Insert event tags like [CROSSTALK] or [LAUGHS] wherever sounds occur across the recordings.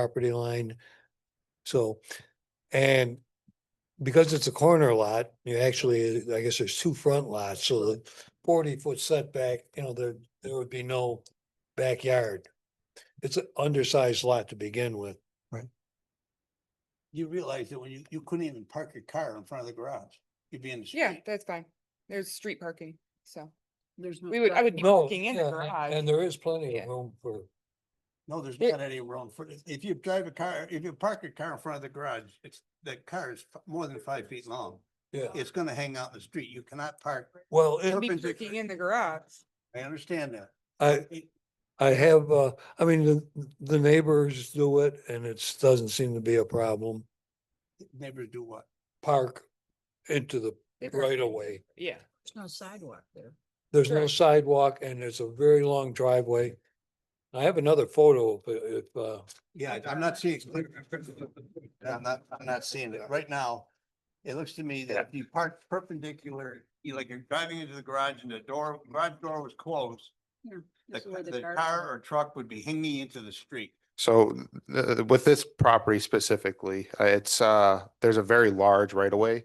property line. So, and because it's a corner lot, you actually, I guess there's two front lots, so the forty foot setback, you know, there, there would be no backyard. It's an undersized lot to begin with. You realize that when you, you couldn't even park your car in front of the garage. You'd be in the Yeah, street. that's fine. There's street parking, so There's no. we would, I would be No, parking in the yeah, and- garage. And there is plenty Yeah. of room for, No, there's There- not any room for, if- if you drive a car, if you park your car in front of the garage, it's, that car is f- more than five feet long. yeah, It's gonna hang out in the street. You cannot park. well, it- I'd be perpendicular. parking in the garage. I understand that. I, I have, uh, I mean, the, the neighbors do it and it's, doesn't seem to be a problem. Neighbors do what? Park into the They park right in- of way. Yeah, There's no sidewalk there. There's no Correct. sidewalk and it's a very long driveway. I have another photo if, if, uh, Yeah, I'm not seeing. it clear. I'm not, I'm not seeing it. Right now, it looks to me that if you park perpendicular, you like you're driving into the garage and the door, garage door was closed. The, That's where the cars car are. or truck would be hanging into the street. So th- with this property specifically, uh, it's, uh, there's a very large right of way.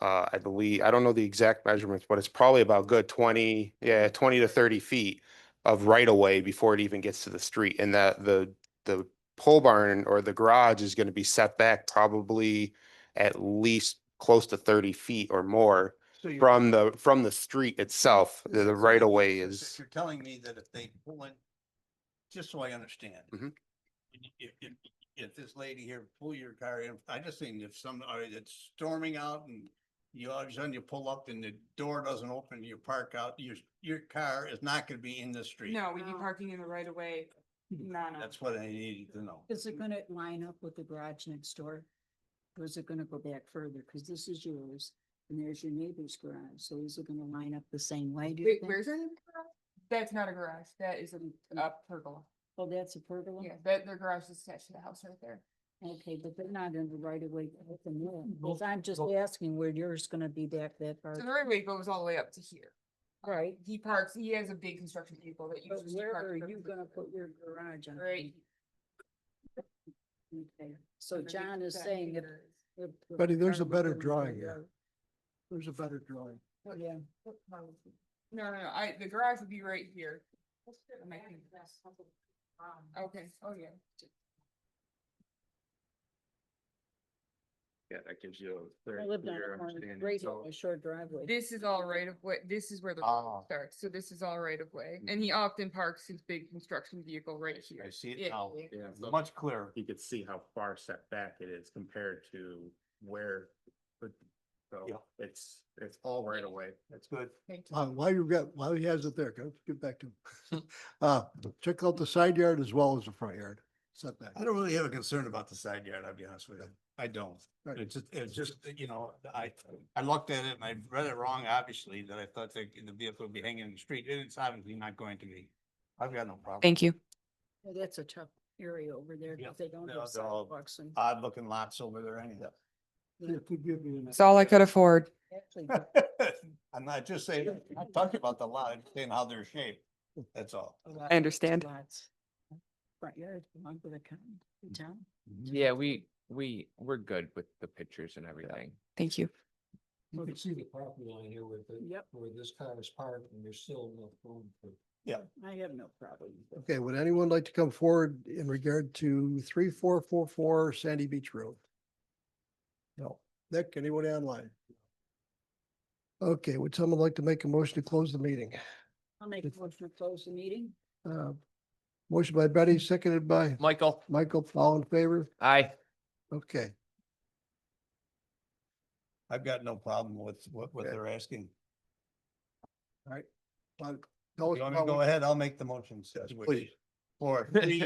Uh, I believe, I don't know the exact measurements, but it's probably about good twenty, yeah, twenty to thirty feet of right of way before it even gets to the street. And that the, the pole barn or the garage is gonna be set back probably at least close to thirty feet or more So you're- from the, from the street itself. The the So right of way you're- is. You're telling me that if they pull in, just so I understand. Mhm. If, if, if this lady here pull your car in, I just think if somebody that's storming out and you, all of a sudden you pull up and the door doesn't open, you park out, your, your car is not gonna be in the street. no, we'd be No. parking in the right of way. Hmm. No, no. That's what I needed to know. Is it gonna line up with the garage next door? Or is it gonna go back further? Cause this is yours and there's your neighbor's garage. So is it gonna line up the same way? do you Wait, think? Hmm. where's it? That's not a garage. That is a, a pergola. Oh, that's a pergola? Yeah, that, their garage is attached to the house right there. Okay, but they're not in the right of way. with them yet, Well, 'cause I'm just well- asking where yours gonna be back that far. So the right of way goes all the way up to here. Um, Right. He parks, he has a big construction vehicle that But uses. to where park are you perpendicular. gonna put your garage on? Right. Okay, so Underneath John is that saying if. meter is- if the Betty, there's a car was better going to the drawing here. road- There's a better drawing. Oh, Yeah. No, no, no, I, the garage would be right here. And I think- Okay, oh yeah. Yeah, that gives you a very I lived on clear a corner, understanding. right So- on a short driveway. This is all right of way, this is where the Ah. road starts, so this is all right of way, and he often parks his big construction vehicle right Mm-hmm. I see- I see here. Yeah, it now, yeah. yeah, so Much clearer. you could see how far set back it is compared to where, but, Yeah. so it's, it's all right away. That's good. Thank you. Uh, while you've got, while he has it there, go get back to him. Uh, check out the side yard as well as the front yard setback. I don't really have a concern about the side yard, I'll be honest with you. I don't. Right. It's just, it's just, you know, I, I looked at it and I read it wrong, obviously, that I thought that the vehicle would be hanging in the street, and it's obviously not going to be. I've got no problem. you. Well, Oh, That's a tough area over there Yeah, because they don't they're have all- they're all- sidewalks and. Odd looking lots over there anyhow. all I could afford. actually, [LAUGHS] I'm not just saying, I'm talking about the lot, I'm saying how they're shaped, that's all. a lot of understand. lots, uh, Front yard belong to the county, the town. Yeah, we, we, we're good with the pictures and everything. Thank you. you can see the property line here with the, Yep, where this car is parked and there's still enough room for. I have no problem. with it. Okay, would anyone like to come forward in regard to three, four, four, four Sandy Beach Road? No. Nick, anyone online? Okay, would someone like to make a motion to close the meeting? I'll make a motion to close the meeting. Uh, Motion by Betty, seconded by Michael, Michael, all in favor? aye. Okay, I've got no problem with what, what Okay. they're asking. well, You tell want us me to go about- ahead, I'll make the motions. Yes, which- please. For [LAUGHS] [LAUGHS] three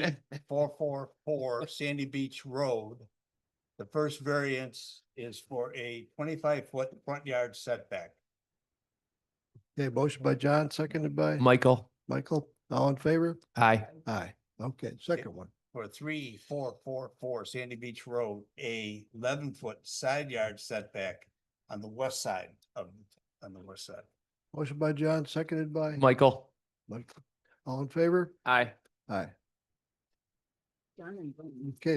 four four four Sandy Beach Road. The first variance is for a twenty-five foot front yard setback. Okay, motion by John, seconded by Michael, Michael, all in favor? aye. Aye. Okay, second one. For three four four four Sandy Beach Road, a eleven foot side yard setback on the west side of, on the west side. Motion by John, seconded by Michael, Mike. All in favor? aye. Aye. John and Brenda. Okay,